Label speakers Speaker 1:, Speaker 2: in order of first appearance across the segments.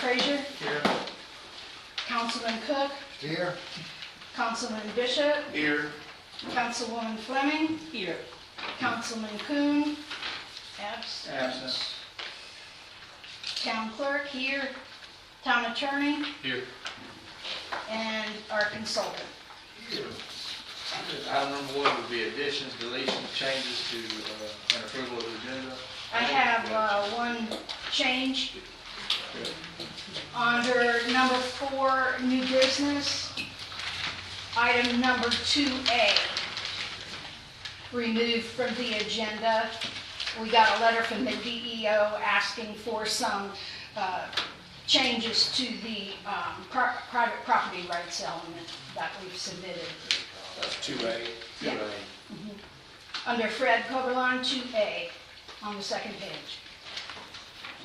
Speaker 1: Frazier,
Speaker 2: Here.
Speaker 1: Councilman Cook,
Speaker 2: Here.
Speaker 1: Councilman Bishop,
Speaker 2: Here.
Speaker 1: Councilwoman Fleming,
Speaker 3: Here.
Speaker 1: Councilman Kuhn, absent.
Speaker 2: Absent.
Speaker 1: Town clerk here, town attorney,
Speaker 2: Here.
Speaker 1: and our consultant.
Speaker 2: Item number one would be additions, deletions, changes to, uh, and approval of the agenda.
Speaker 1: I have uh, one change. Under number four, new business, item number 2A, removed from the agenda. We got a letter from the DEO asking for some uh, changes to the um, pri- private property rights element that we've submitted.
Speaker 2: That's two A.
Speaker 1: Yeah. Under Fred Coberline, 2A, on the second page.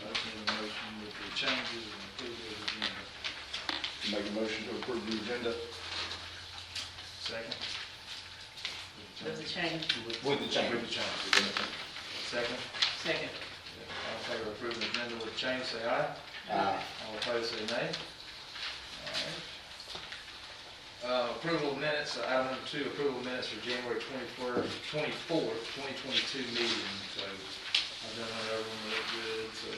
Speaker 2: Motion, motion with the changes and approval of the agenda.
Speaker 4: Make a motion to approve the agenda
Speaker 2: Second.
Speaker 3: With the change,
Speaker 4: with the change.
Speaker 2: With the change. Second.
Speaker 3: second.
Speaker 2: All in favor of approving the agenda with the change, say aye.
Speaker 5: Uh,
Speaker 4: Aye.
Speaker 2: All opposed, say nay. All right. Uh, Approval of minutes, uh, item number two, approval of minutes for January 24th, 24th, 2022 meeting. So I've done that, everyone looked good, so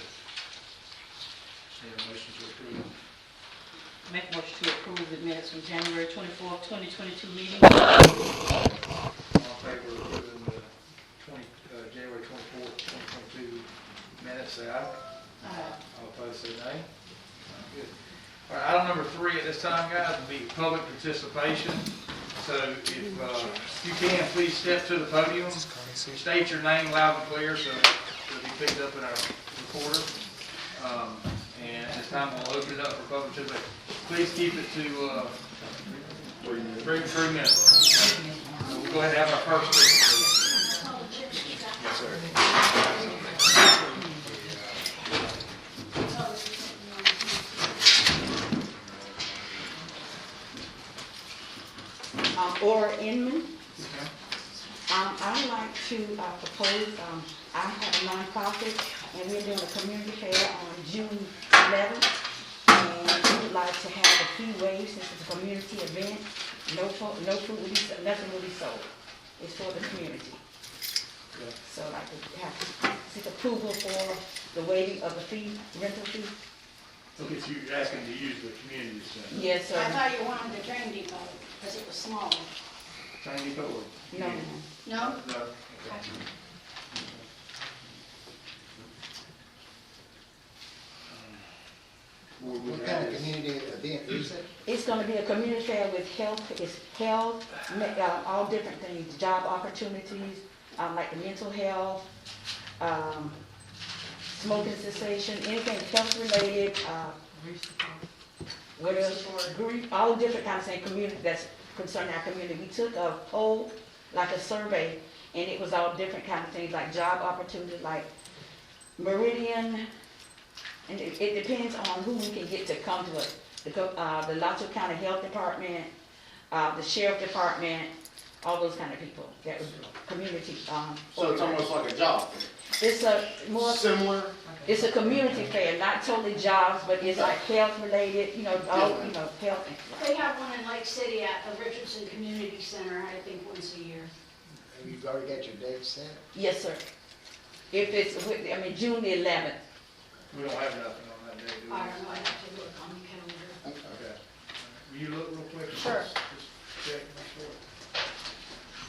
Speaker 2: just need a motion to approve.
Speaker 3: Make motion to approve the minutes from January twenty-fourth, twenty twenty-two meeting.
Speaker 2: All in favor of approving the 20, uh, January 24th, 2022 minutes, say aye.
Speaker 3: Uh,
Speaker 2: All opposed, say nay. Good. All right, item number three at this time, guys, will be public participation. So if uh, you can, please step to the podium, state your name loud and clear so it'll be picked up in our recorder. Um, And at this time, we'll open it up for public participation. Please keep it to uh,
Speaker 4: Three minutes.
Speaker 2: three, three minutes. So We'll go ahead and have our first speaker. Yes, sir.
Speaker 6: Um, Aura Inman. Um, I'd Um, like to uh, propose, um, I have a nonprofit, and we're doing a community fair on June eleventh. And we'd like to have a free wave, since it's a community event, no food, no food will be, nothing will be sold. It's for the community.
Speaker 2: Yeah.
Speaker 6: So I'd like to have, seek approval for the waiving of the fee, rental fee.
Speaker 2: Look at you asking to use the community center.
Speaker 6: Yes,
Speaker 7: I
Speaker 6: sir.
Speaker 7: thought you wanted the train depot, because it was small.
Speaker 2: Thank you, Board.
Speaker 6: No,
Speaker 7: No?
Speaker 2: No? Okay. Board, would
Speaker 8: What
Speaker 2: you
Speaker 8: kind
Speaker 2: add
Speaker 8: of
Speaker 2: this?
Speaker 8: community event is it?
Speaker 6: It's gonna be a community fair with health, it's health, ma- uh, all different things, job opportunities, um, like the mental health, um, smoking cessation, anything health related, uh, what else? Grief, all different kinds of things, community, that's concerning our community. We took a poll, like a survey, and it was all different kind of things, like job opportunities, like Meridian, and it, it depends on who we can get to come to us. The, co- uh, the Lato County Health Department, uh, the Sheriff Department, all those kind of people, that was community, um.
Speaker 5: So it's almost like a job.
Speaker 6: It's a, more,
Speaker 5: Similar,
Speaker 6: it's a community fair, not totally jobs, but it's like health related, you know, all, you know, health.
Speaker 7: They have one in Lake City at the Richardson Community Center, I think, once a year.
Speaker 8: Have you already got your date set?
Speaker 6: Yes, sir. If it's, with- I mean, June the eleventh,
Speaker 2: We don't have nothing on that day, do we?
Speaker 7: I don't know, I have to look on the calendar.
Speaker 2: Okay. Will you look real quick?
Speaker 6: Sure.
Speaker 2: Just check, make sure.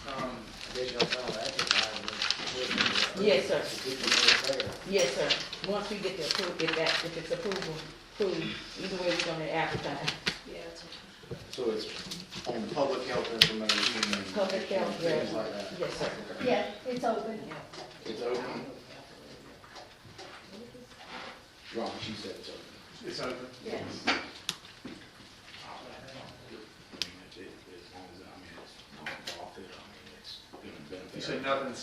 Speaker 2: Um,
Speaker 8: I guess y'all found out that time.
Speaker 6: Yes, sir.
Speaker 8: The people that are there.
Speaker 6: yes, sir. Once we get the approval, if that, if it's approval, approved, either way, we're gonna advertise.
Speaker 7: Yeah, it's okay.
Speaker 5: so it's on public health information and.
Speaker 6: Public health, yeah.
Speaker 5: Things like that.
Speaker 6: Yes, sir.
Speaker 1: Yeah, it's open.
Speaker 5: It's open. Wrong, she said it's open.
Speaker 2: It's open.
Speaker 7: Yes.
Speaker 2: You said nothing